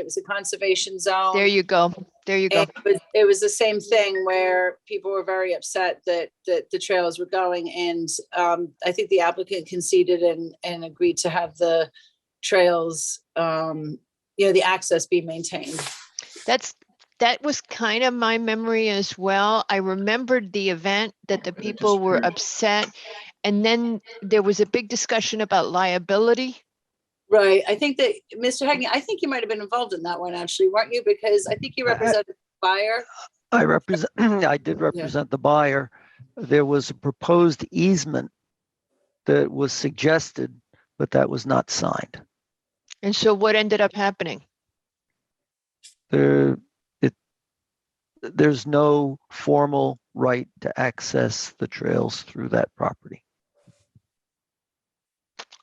It was a conservation zone. There you go. There you go. And It was, it was the same thing where people were very upset that, that the trails were going and, um, I think the applicant conceded and, and agreed to have the trails, um, you know, the access be maintained. That's, that was kind of my memory as well. I remembered the event that the people were upset. And then there was a big discussion about liability. Right, I think that, Mr. Hagney, I think you might have been involved in that one actually, weren't you? Because I think you Uh, represented the buyer. I represent, I did represent the buyer. There was a proposed easement that was suggested, but that was not signed. And so what ended up happening? There, it, there's no formal right to access the trails through that property.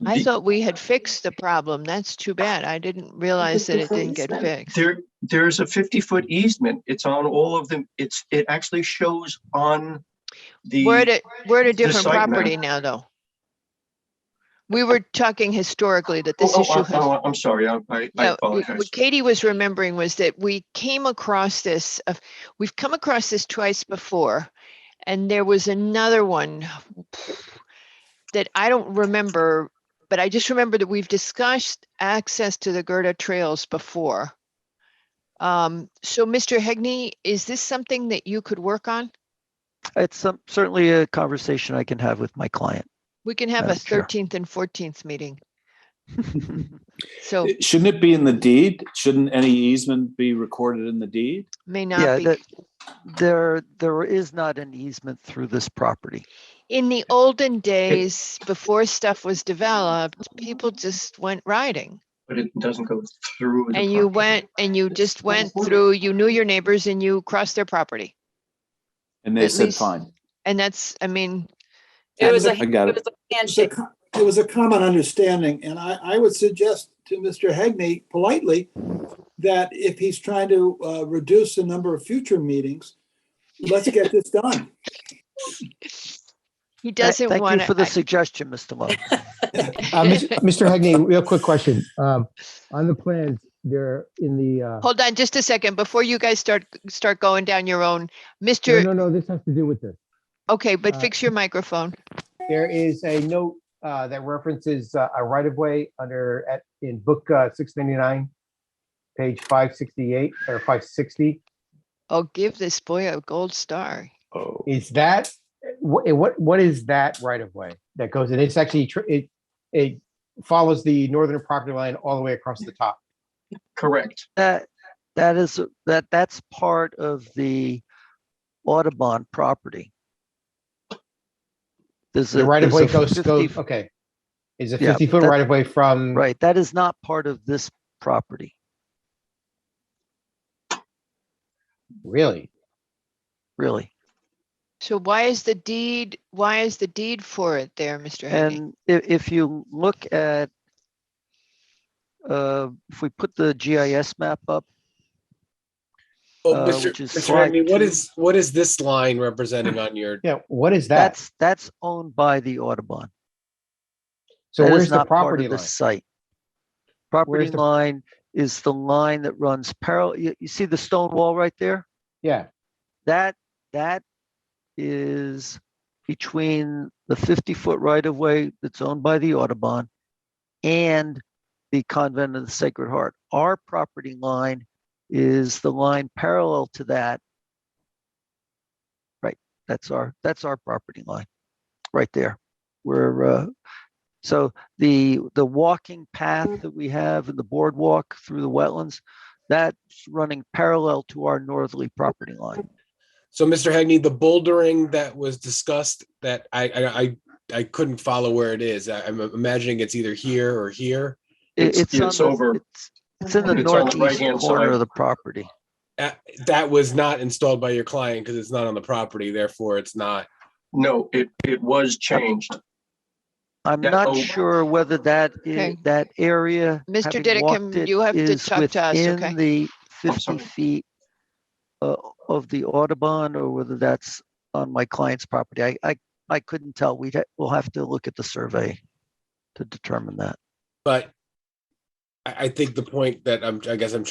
I The- thought we had fixed the problem. That's too bad. I didn't realize that it didn't get fixed. There, there's a fifty-foot easement. It's on all of them. It's, it actually shows on the, We're at a, we're at a different site map. property now, though. We were talking historically that oh, this oh, issue oh, has. oh, I'm sorry. I, I- I No, w- apologize. what Katie was remembering was that we came across this, uh, we've come across this twice before. And there was another one that I don't remember, but I just remember that we've discussed access to the Gerda trails before. Um, so Mr. Hegney, is this something that you could work on? It's some, certainly a conversation I can have with my client. We can have a Madam Chair. thirteenth and fourteenth meeting. So It- Shouldn't it be in the deed? Shouldn't any easement be recorded in the deed? may Yeah, not be. that, there, there is not an easement through this property. In the olden days, before stuff was developed, people just went riding. But it doesn't go through. the And you property. went, and you just went affordable. through, you knew your neighbors and you crossed their property. And they At said, least- fine. And that's, I mean, It was a, I got it it. was a It's a handshake. co- It was a common understanding, and I, I would suggest to Mr. Hegney politely that if he's trying to uh, reduce the number of future meetings, let's get this done. he Th- doesn't want Thank you for the to. suggestion, Mr. Lowe. Uh, Mis- Mr. Hegney, real quick question. Um, On the plans, there in the, uh, Hold on just a second before you guys start, start going down your own. no, Mr. no, no, this has to do with this. Okay, but uh, fix your microphone. There is a note uh, that references uh, a right-of-way under, at- in book uh, 699, page 568 or 560. Oh, give this boy a gold star. Is that, what, what, what is that right-of-way that goes in? It's actually, tr- it, it follows the northern property line all the way across the top. Correct. That, that is, that, that's part of the Audubon property. There's a. The right-of-way there's goes, a goes, 50 okay. Is a Yeah, 50-foot that- right-of-way from? Right, that is not part of this property. Really? really. So why is the deed, why is the deed for it there, Mr. Henning? And i- if you look at, uh, if we put the GIS map up, Well, uh, Mr. which is Mr. flag Hagney, what two. is, what is this line representing on your, Yeah, what is that? that's, that's owned by the Audubon. So That is where's the not part of property this line? Site. Property the- line is the line that runs parallel, you, you see the stone wall right there? Yeah, That, that is between the fifty-foot right-of-way that's owned by the Audubon and the Convent of the Sacred Heart. Our property line is the line parallel to that. Right, that's our, that's our property line, right there. We're, uh, so the, the walking path that we have and the boardwalk through the wetlands, that's running parallel to our northerly property line. so Mr. Hagney, the bouldering that was discussed that I, I, I, I couldn't follow where it is. I- I'm imagining it's either here or here. It- It's- It's on it's the- over- it's- It's in the it's on the northeast right-hand corner side. of the property. Uh, That was not installed by your client because it's not on the property, therefore it's not. No, it, it was changed. I'm Yeah, not oh. sure whether that, i- Okay. that area. Mr. having Dedekam, walked it, you have to is talk to us, okay? within The fifty sorry. feet uh, of the Audubon or whether that's on my client's property. I, I, I couldn't tell. We'd, ha- we'll have to look at the survey to determine that. But I, I think the point that I'm, I guess I'm